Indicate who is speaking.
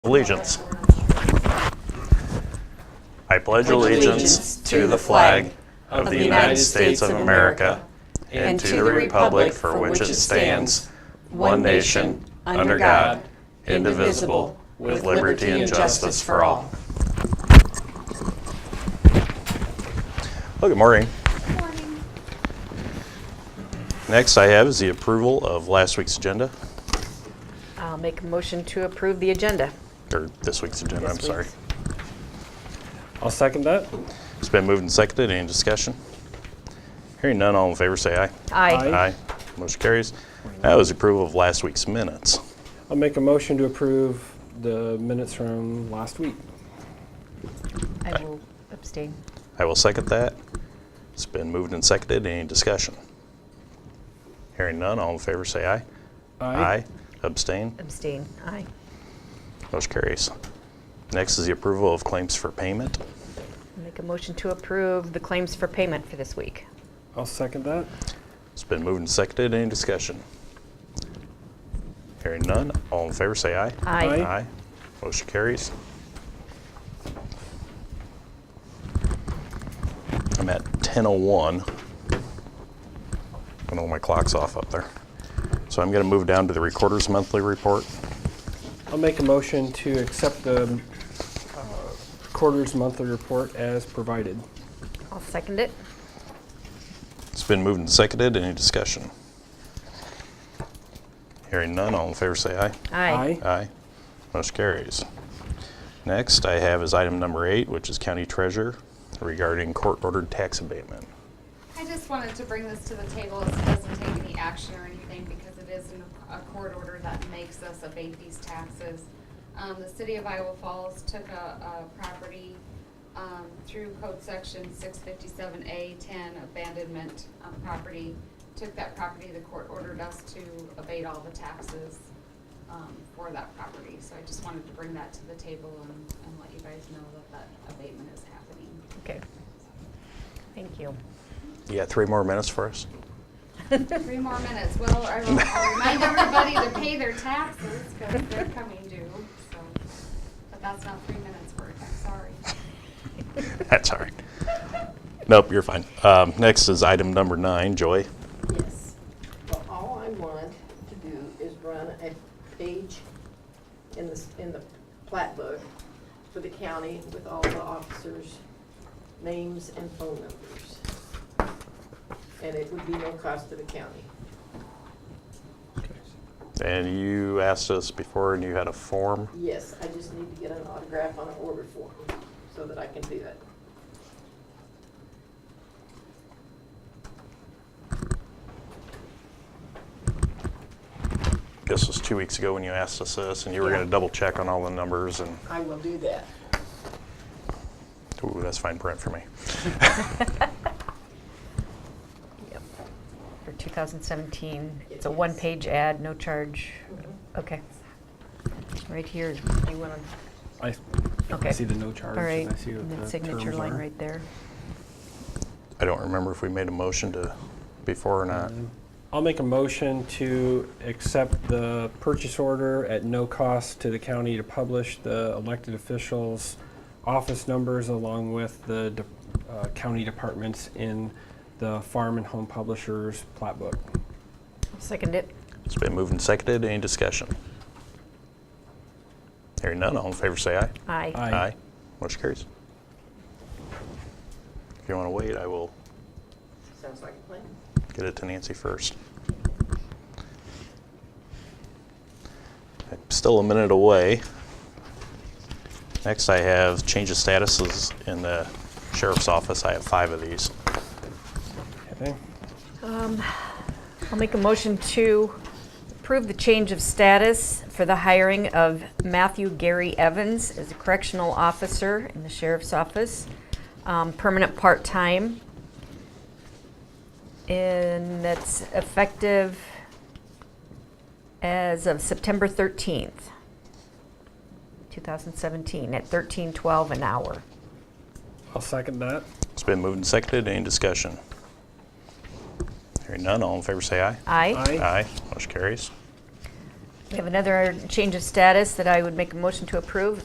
Speaker 1: Allegiance. I pledge allegiance to the flag of the United States of America and to the republic for which it stands, one nation, under God, indivisible, with liberty and justice for all. Well, good morning. Next I have is the approval of last week's agenda,
Speaker 2: I'll make a motion to approve the agenda.
Speaker 1: or this week's agenda, I'm
Speaker 2: This
Speaker 1: sorry.
Speaker 2: week's.
Speaker 3: I'll second that.
Speaker 1: It's been moved and seconded. Any discussion? Hearing none, all in favor say aye.
Speaker 2: Aye.
Speaker 1: Aye. Motion carries. That was approval of last week's minutes.
Speaker 3: I'll make a motion to approve the minutes from last week.
Speaker 2: I will abstain.
Speaker 1: I will second that. It's been moved and seconded. Any discussion? Hearing none, all in favor say aye. Abstain?
Speaker 2: Abstain, aye.
Speaker 1: Motion carries. Next is the approval of claims for payment.
Speaker 2: Make a motion to approve the claims for payment for this week.
Speaker 3: I'll second that.
Speaker 1: It's been moved and seconded. Any discussion? Hearing none, all in favor say aye.
Speaker 3: Aye.
Speaker 1: Aye. Motion carries. I'm at 10:01. I know my clock's off up there. So I'm going to move down to the Recorder's Monthly Report.
Speaker 3: I'll make a motion to accept the uh, quarter's monthly report as provided.
Speaker 2: I'll second it.
Speaker 1: It's been moved and seconded. Any discussion? Hearing none, all in favor say aye.
Speaker 2: Aye.
Speaker 1: Aye. Motion carries. Next I have is item number eight, which is County Treasurer regarding court-ordered tax abatement.
Speaker 4: I just wanted to bring this to the table. It doesn't take any action or anything because it is an- a court order that makes us abate these taxes. Um, the city of Iowa Falls took a, a property, um, through code section six fifty-seven A ten abandonment of property. Took that property, the court ordered us to abate all the taxes, um, for that property. So I just wanted to bring that to the table and, and let you guys know that that abatement is happening.
Speaker 2: Okay, thank you.
Speaker 1: You got three more minutes for us?
Speaker 4: Three more minutes. Well, I will I'll remind everybody to pay their taxes because they're coming due, so. But that's not three minutes worth, I'm sorry.
Speaker 1: That's all right. Nope, you're fine. Um, next is item number nine, Joy.
Speaker 5: Yes. Well, all I want to do is run a page in the, s- in the plat book for the county with all the officers' names and phone numbers. And it would be no cost to the county.
Speaker 1: And you asked us before and you had a form.
Speaker 5: Yes, I just need to get an autograph on an order form so that I can do that.
Speaker 1: This was two weeks ago when you asked us this and you were
Speaker 5: Yeah.
Speaker 1: gonna double check on all the numbers and,
Speaker 5: I will do that.
Speaker 1: ooh, that's fine print for me.
Speaker 2: Yep. For 2017, it's a
Speaker 5: Yes.
Speaker 2: one-page ad, no charge. Okay. Right here, you want
Speaker 3: I
Speaker 2: to, okay.
Speaker 3: I see the no charge.
Speaker 2: All right,
Speaker 3: and I see what
Speaker 2: and
Speaker 3: the
Speaker 2: that signature
Speaker 3: terms
Speaker 2: line
Speaker 3: are.
Speaker 2: right there.
Speaker 1: I don't remember if we made a motion to, before or not.
Speaker 3: I'll make a motion to accept the purchase order at no cost to the county to publish the elected officials' office numbers along with the de- uh, county departments in the Farm and Home Publishers plat book.
Speaker 2: I'll Second it.
Speaker 1: It's been moved and seconded. Any discussion? Hearing none, all in favor say aye.
Speaker 2: Aye.
Speaker 3: Aye.
Speaker 1: Motion carries. If you wanna wait, I will
Speaker 5: Sounds like a plan.
Speaker 1: get it to Nancy first. I'm Still a minute away. Next, I have change of statuses in the sheriff's office. I have five of these.
Speaker 3: Okay.
Speaker 2: I'll make a motion to approve the change of status for the hiring of Matthew Gary Evans as a correctional officer in the sheriff's office, um, permanent part-time. And that's effective as of September 13th, 2017, at 13.12 an hour.
Speaker 3: I'll second that.
Speaker 1: It's been moved and seconded. Any discussion? Hearing none, all in favor say aye.
Speaker 2: Aye.
Speaker 3: Aye.
Speaker 1: Aye. Motion carries.
Speaker 2: We have another change of status that I would make a motion to approve.